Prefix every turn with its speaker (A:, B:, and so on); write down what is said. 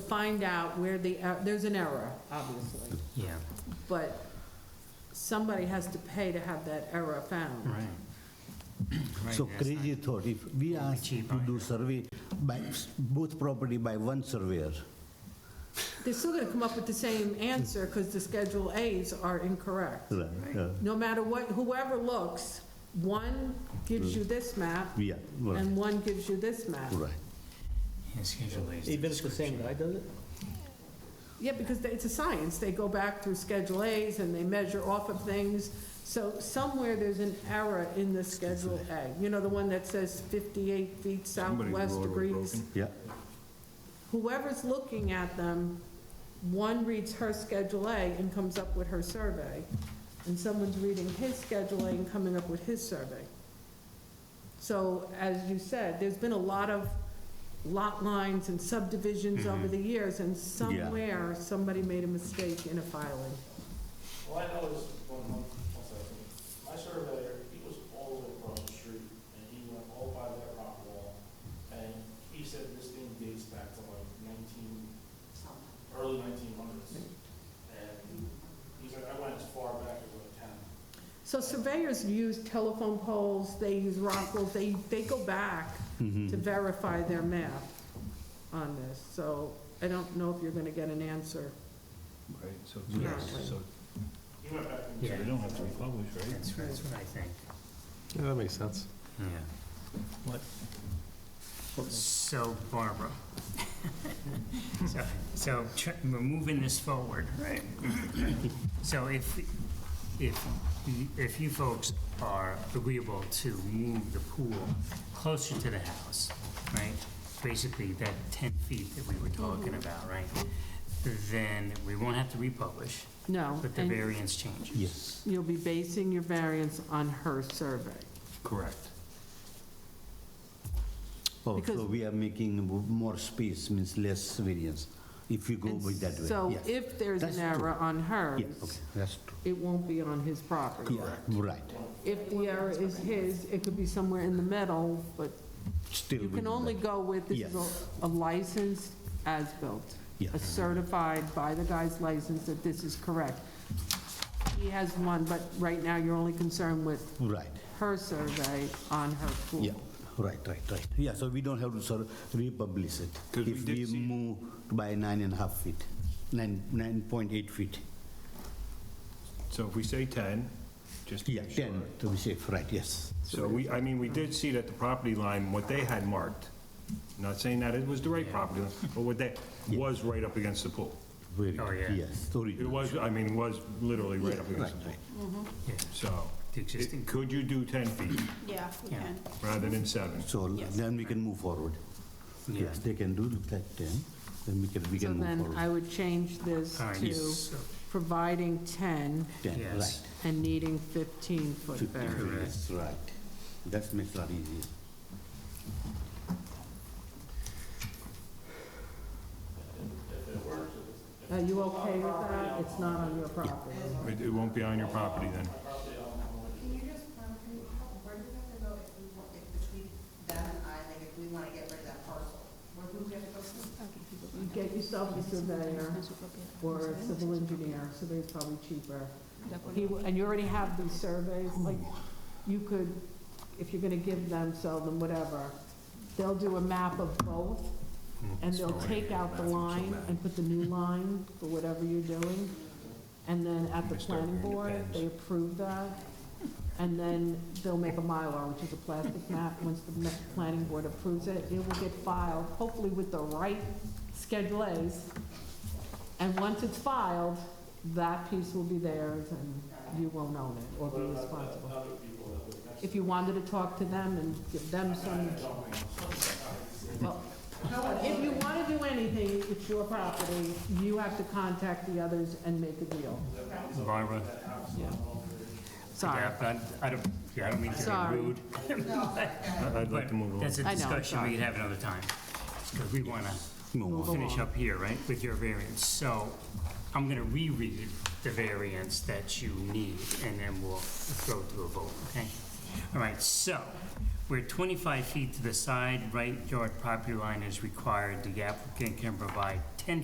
A: find out where the, er- there's an error, obviously,
B: Yeah,
A: but somebody has to pay to have that error found.
B: right. Right,
C: So
B: yes,
C: crazy thought, if we ask to
B: cheaper,
C: do survey by s- both property by one surveyor,
A: They're still gonna come up with the same answer, because the Schedule As are incorrect.
C: right, uh,
A: No matter what, whoever looks, one gives you this map,
C: yeah, right,
A: and one gives you this map.
C: right.
B: Yeah, Schedule A is the
D: Even if the same
B: description.
D: guy does it?
A: Yeah, because they- it's a science. They go back through Schedule As and they measure off of things. So somewhere there's an error in the Schedule A. You know, the one that says 58 feet southwest degrees?
C: Yeah,
A: Whoever's looking at them, one reads her Schedule A and comes up with her survey, and someone's reading his Schedule A and coming up with his survey. So as you said, there's been a lot of lot lines and subdivisions over the years, and somewhere, somebody made a mistake in a filing.
E: Well, I know this one month, one second. My surveyor, he was all the way across the street, and he went all by that rock wall, and he said this thing dates back to like nineteen, early nineteen hundreds. And he's like, I went as far back as like ten.
A: So surveyors use telephone poles, they use rockels, they, they go back
C: Mm-hmm.
A: to verify their map on this. So I don't know if you're gonna get an answer.
F: Right, so,
A: Yeah.
F: so- so,
E: He went back and.
B: Yeah.
F: so they don't have to republish, right?
B: That's, that's what I think,
D: Yeah, that makes sense.
B: yeah. So Barbara. So- So tr- we're moving this forward, right? So if, if, if you folks are agreeable to move the pool closer to the house, right? Basically that 10 feet that we were talking about, right? Then we won't have to republish,
A: No,
B: but the
A: and
B: variance changes.
C: yes,
A: you'll be basing your variance on her survey.
F: Correct.
C: oh,
A: Because-
C: so we are making mo- more space, means less variance, if you go
A: And
C: with that way.
A: So
C: Yeah.
A: if there's an
C: That's
A: error on hers,
C: Yeah, okay, that's true.
A: it won't be on his property.
C: Yeah, right,
A: If the error is his, it could be somewhere in the middle, but
C: still.
A: you
C: with
A: can only
C: that.
A: go with, this is
C: Yes.
A: a- a licensed as-built.
C: Yeah.
A: a certified by the guy's license that this is correct. He has one, but right now you're only concerned with
C: Right,
A: her survey on her pool.
C: yeah, right, right, right. Yeah, so we don't have to sort of republish it.
F: 'Cause we
C: If
F: did
C: we
F: see-
C: move by nine and a half feet, nine, 9.8 feet.
F: So if we say 10, just to
C: Yeah,
F: make sure.
C: 10, to be safe, right, yes.
F: So we, I mean, we did see that the property line, what they had marked, not saying that it was the right property, line, but what they, was right up against the pool.
C: Very
B: Oh,
C: good,
B: yeah.
C: Yes,
F: It
C: original.
F: was, I mean, it was literally right up
C: Right,
F: against the pool.
C: right.
B: Yeah,
F: So,
B: The existing-
F: it- could you do 10 feet
G: Yeah, we
B: Yeah.
G: can.
F: rather than seven?
C: So
G: Yes.
C: then we can move forward.
B: Yeah.
C: Yes, they can do that then, then we can, we
A: So
C: can move
A: then I
C: forward.
A: would change this
B: all
A: to
B: right, so-
A: providing 10
C: Then,
B: yes.
C: right.
A: and needing 15-foot variance.
C: Yes, right. That makes a lot easier.
A: Are you okay with that? It's not on your property.
F: It it won't be on your property then?
H: Can you just, um, can you, how, where do we have to go if we, want- if between them and I, like, if we wanna get rid of that parcel? Where do we have to go to?
A: You get yourself a surveyor or a civil engineer, surveyor's probably cheaper. He w- And you already have these surveys, like, you could, if you're gonna give them, sell them, whatever, they'll do a map of both, and they'll take out the line and put the new line for whatever you're doing. And then at the
F: Mr.
A: planning board, they approve that, and then they'll make a Mylar, which is a plastic map. Once the ma- planning board approves it, it will get filed, hopefully with the right Schedule As. And once it's filed, that piece will be theirs, and you won't own it or be responsible. If you wanted to talk to them and give them some. Well, If you want to do anything, it's your property, you have to contact the others and make a deal.
B: Barbara?
A: Yeah. Sorry.
B: Yeah, but I don't, yeah, I don't mean to be
A: Sorry.
B: rude.
F: I- I'd like to move on.
B: That's a
A: I know, I'm
B: discussion we
A: sorry.
B: could have another time, because we want to
C: Move on.
B: finish up here, right, with your variance. So I'm going to reread the variance that you need, and then we'll go to a vote, okay? All right, so where 25 feet to the side, right yard property line is required, the applicant can provide